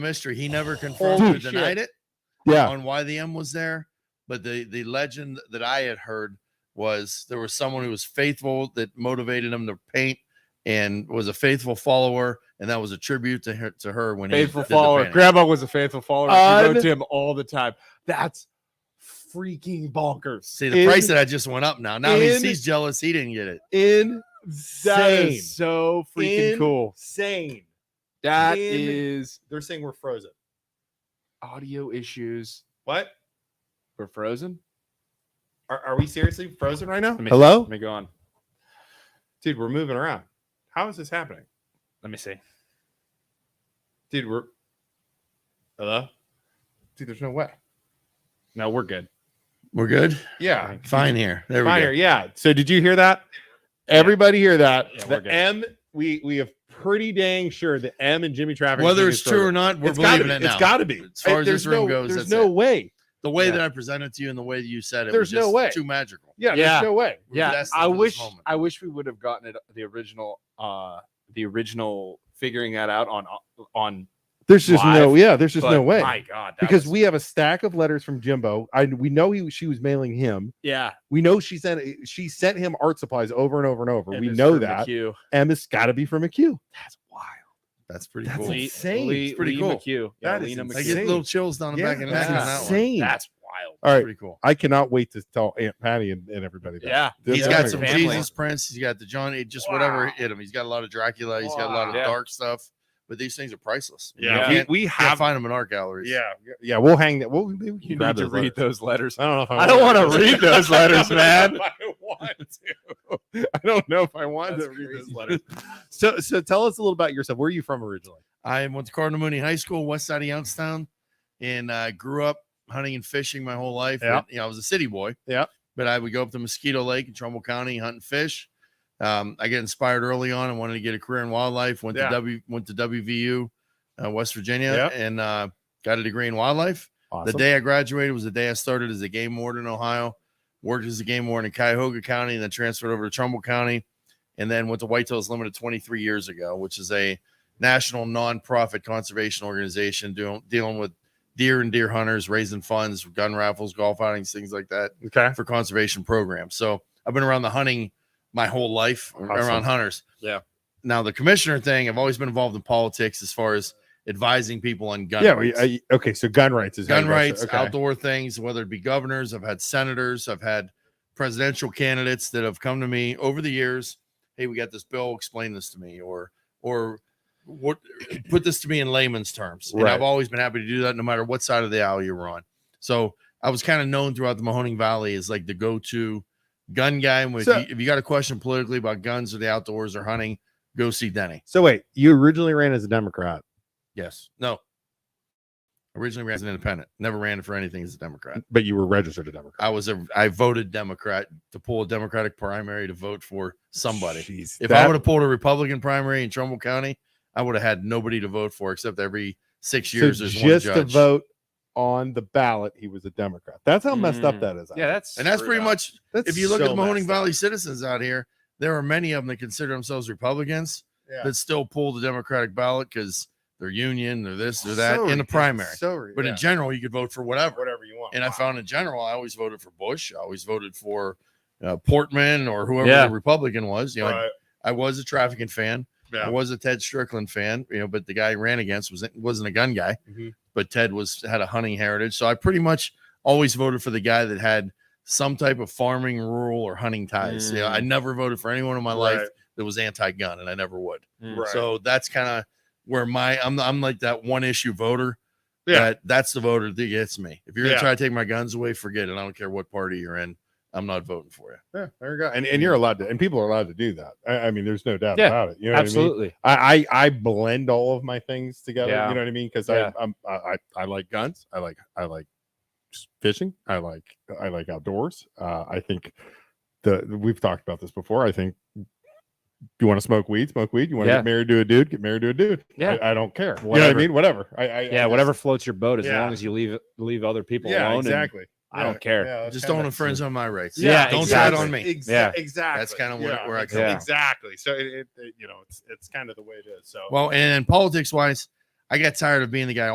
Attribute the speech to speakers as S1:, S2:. S1: mystery. He never confirmed or
S2: Holy
S1: denied it
S3: Ah.
S2: Yeah.
S1: on why the M was there. But the the legend that I had heard was there was someone who was faithful that motivated him to paint and was a faithful follower, and that was a tribute to her to her when
S2: Faithful
S1: he did the
S2: follower.
S1: painting.
S2: Grandma was a faithful follower. She
S3: Un-
S2: wrote to him all the time. That's freaking bonkers.
S1: See the price that I just went up now. Now he's,
S2: in-
S1: he's jealous. He didn't get it.
S2: Insane. That
S3: Insane.
S2: is so freaking cool.
S3: Insane.
S2: That
S3: In-
S2: is
S3: They're saying we're frozen.
S2: audio issues.
S3: What?
S2: We're frozen.
S3: Are, are we seriously frozen right now?
S2: Let me-
S3: Hello?
S2: Let me go on.
S3: Dude, we're moving around. How is this happening?
S2: Let me see.
S3: Dude, we're. Hello? Dude, there's no way.
S2: No, we're good.
S1: We're good.
S3: Yeah.
S1: Fine here. There we go.
S3: Fire. Yeah. So did you hear that? Everybody hear that?
S2: Yeah, we're
S3: the
S2: good.
S3: M, we we have pretty dang sure the M and Jimmy Traffic.
S1: Whether it's true or not, we're believing it now.
S3: It's got to be.
S1: As far
S3: Uh,
S1: as
S3: there's
S1: this room
S3: no-
S1: goes,
S3: there's
S1: that's
S3: no
S1: it.
S3: way.
S1: the way
S2: Yeah.
S1: that I presented to you and the way that you said it was
S3: There's
S1: just
S3: no way.
S1: too magical.
S3: Yeah,
S2: Yeah.
S3: There's no way.
S1: We're
S2: Yeah,
S1: destined
S2: I
S1: for this
S2: wish
S1: moment.
S2: I wish we would have gotten it the original uh the original figuring that out on uh, on
S3: There's just no.
S2: Live,
S3: Yeah. There's just
S2: but
S3: no way.
S2: My God, that
S3: because
S2: was-
S3: we have a stack of letters from Jimbo. I we know he she was mailing him.
S2: yeah,
S3: We know she sent she sent him art supplies over and over and over.
S2: and
S3: we
S2: it's
S3: know
S2: from
S3: that
S2: McHugh.
S3: M has got to be from a Q.
S2: That's wild.
S1: That's pretty
S3: That's
S1: cool.
S3: Cool.
S2: Lee,
S3: insane.
S2: Lee,
S1: It's pretty
S2: Lee
S1: cool.
S2: McHugh. Yeah,
S3: That is
S2: Lena
S1: I
S2: McHugh.
S1: get
S3: insane.
S1: little chills down the back of the neck
S2: that's
S1: on that one.
S3: insane.
S2: That's wild.
S3: All right,
S1: Pretty cool.
S3: I cannot wait to tell Aunt Patty and, and everybody. That.
S2: Yeah,
S3: This
S1: he's
S3: is
S1: got
S3: amazing.
S1: some
S2: Family.
S1: Jesus prints. He's got the Johnny, just whatever
S2: Wow.
S1: hit him. He's got a lot of Dracula. He's got a lot of
S2: Wow.
S1: dark stuff. But these things are priceless. You
S2: Yeah.
S1: know, you
S3: we,
S1: can't,
S3: we
S1: can't
S3: have.
S1: find them in art galleries.
S3: yeah, we'll hang that. We'll, maybe we can
S2: you
S3: grab
S2: need to
S3: those
S2: read
S3: letters.
S2: those letters.
S3: I don't know if I,
S2: I don't
S3: want
S2: wanna
S3: to
S2: read those letters, man.
S3: I don't want to. I don't know if I want
S2: That's
S3: to read those
S2: crazy.
S3: letters. So, so tell us a little about yourself. Where are you from originally?
S1: I went to Cardinal Mooney High School, west side of Youngstown, and I grew up hunting and fishing my whole life.
S3: Yeah.
S1: And, you know, I was a city boy.
S3: Yeah.
S1: But I would go up to Mosquito Lake in Trumbull County hunting fish. Um, I got inspired early on. I wanted to get a career in wildlife. Went
S3: Yeah.
S1: to W went to WVU, uh, West Virginia,
S3: Yeah.
S1: and uh, got a degree in wildlife. The day I graduated was the day I started as a game warden in Ohio. Worked as a game warden in Cuyahoga County, and then transferred over to Trumbull County, and then went to Whitetails Limited 23 years ago, which is a national nonprofit conservation organization doing dealing with deer and deer hunters, raising funds, gun raffles, golf outings, things like that
S3: okay.
S1: for conservation programs. So I've been around the hunting my whole life
S3: Awesome.
S1: around hunters.
S2: Yeah.
S1: Now the commissioner thing, I've always been involved in politics as far as advising people on gun.
S3: Yeah.
S1: rights
S3: we- I- okay. So gun rights is how
S1: gun
S3: you got started.
S1: rights,
S3: Okay.
S1: outdoor things, whether it be governors, I've had senators, I've had presidential candidates that have come to me over the years. Hey, we got this bill. Explain this to me, or or what? Put this to me in layman's terms. And
S3: Right.
S1: I've always been happy to do that, no matter what side of the aisle you're on. So I was kind of known throughout the Mahoning Valley as like the go-to gun guy. With
S3: So-
S1: you, if you got a question politically about guns or the outdoors or hunting, go see Denny.
S3: So wait, you originally ran as a Democrat.
S1: Yes. No. Originally ran as an independent. Never ran for anything as a Democrat.
S3: but you were registered a Democrat.
S1: Uh, I was a I voted Democrat to pull a Democratic primary to vote for somebody.
S3: Jeez,
S1: If I
S3: that-
S1: would have pulled a Republican primary in Trumbull County, I would have had nobody to vote for except every six
S3: so
S1: years there's one
S3: just to
S1: judge.
S3: vote on the ballot, he was a Democrat. That's how messed up
S2: Mm.
S3: that is.
S2: Yeah, that's
S1: And that's
S2: screwed
S1: pretty
S2: up.
S1: much
S3: That's
S1: if you look
S3: so
S1: at the Mahoning
S3: messed up.
S1: Valley citizens out here, there are many of them that consider themselves Republicans
S3: Yeah.
S1: that still pull the Democratic ballot because they're union, they're this, they're
S3: So
S1: that in the
S3: ridiculous,
S1: primary.
S3: So ri-
S1: But
S3: yeah.
S1: in general, you could vote for whatever.
S3: whatever you want.
S1: And I found in general, I always voted for Bush. I always voted for uh, Portman or whoever
S2: Yeah.
S1: the Republican was. You know, I-
S3: Right.
S1: I was a trafficking fan.
S3: Yeah.
S1: I was a Ted Strickland fan, you know, but the guy I ran against was wasn't a gun guy,
S3: Mhm.
S1: but Ted was had a hunting heritage. So I pretty much always voted for the guy that had some type of farming, rural, or hunting ties. Yeah,
S2: Mm.
S1: I never voted for anyone in my life
S3: Right.
S1: that was anti-gun, and I never would.
S2: Mm.
S3: Right.
S1: So that's kind of where my I'm I'm like that one issue voter.
S3: Yeah.
S1: that- that's the voter that gets me. If you're gonna
S3: Yeah.
S1: try to take my guns away, forget it. I don't care what party you're in. I'm not voting for you.
S3: Yeah, there you go. And, and you're allowed to, and people are allowed to do that. I, I mean, there's no doubt
S2: Yeah,
S3: about it. You know
S2: Absolutely.
S3: What I, mean? I, I I blend all of my things together.
S2: Yeah.
S3: You know what I mean? Because
S2: Yeah.
S3: I I'm, I I I like guns. I like I like s- fishing. I like I like outdoors. Uh, I think the we've talked about this before. I think you want to smoke weed, smoke weed. You want to
S2: Yeah.
S3: get married to a dude, get married to a dude.
S2: Yeah.
S3: I, I don't care. You know what I
S2: Whatever.
S3: mean? Whatever. I, I I
S2: Yeah,
S3: just-
S2: whatever floats your boat, as
S3: Yeah.
S2: long as you leave leave other people
S3: Yeah,
S2: alone. and
S3: exactly.
S2: I don't care.
S1: Just don't infringe on my rights.
S2: Yeah,
S1: don't
S2: exactly.
S1: try it on me.
S3: Exa-
S2: Yeah.
S3: exactly.
S1: That's kinda where- where I
S3: ex-
S2: come from.
S3: Exactly. So it, it, it, you know, it's it's kind of the way it is. So
S1: Well, and, and politics wise, I got tired of being the guy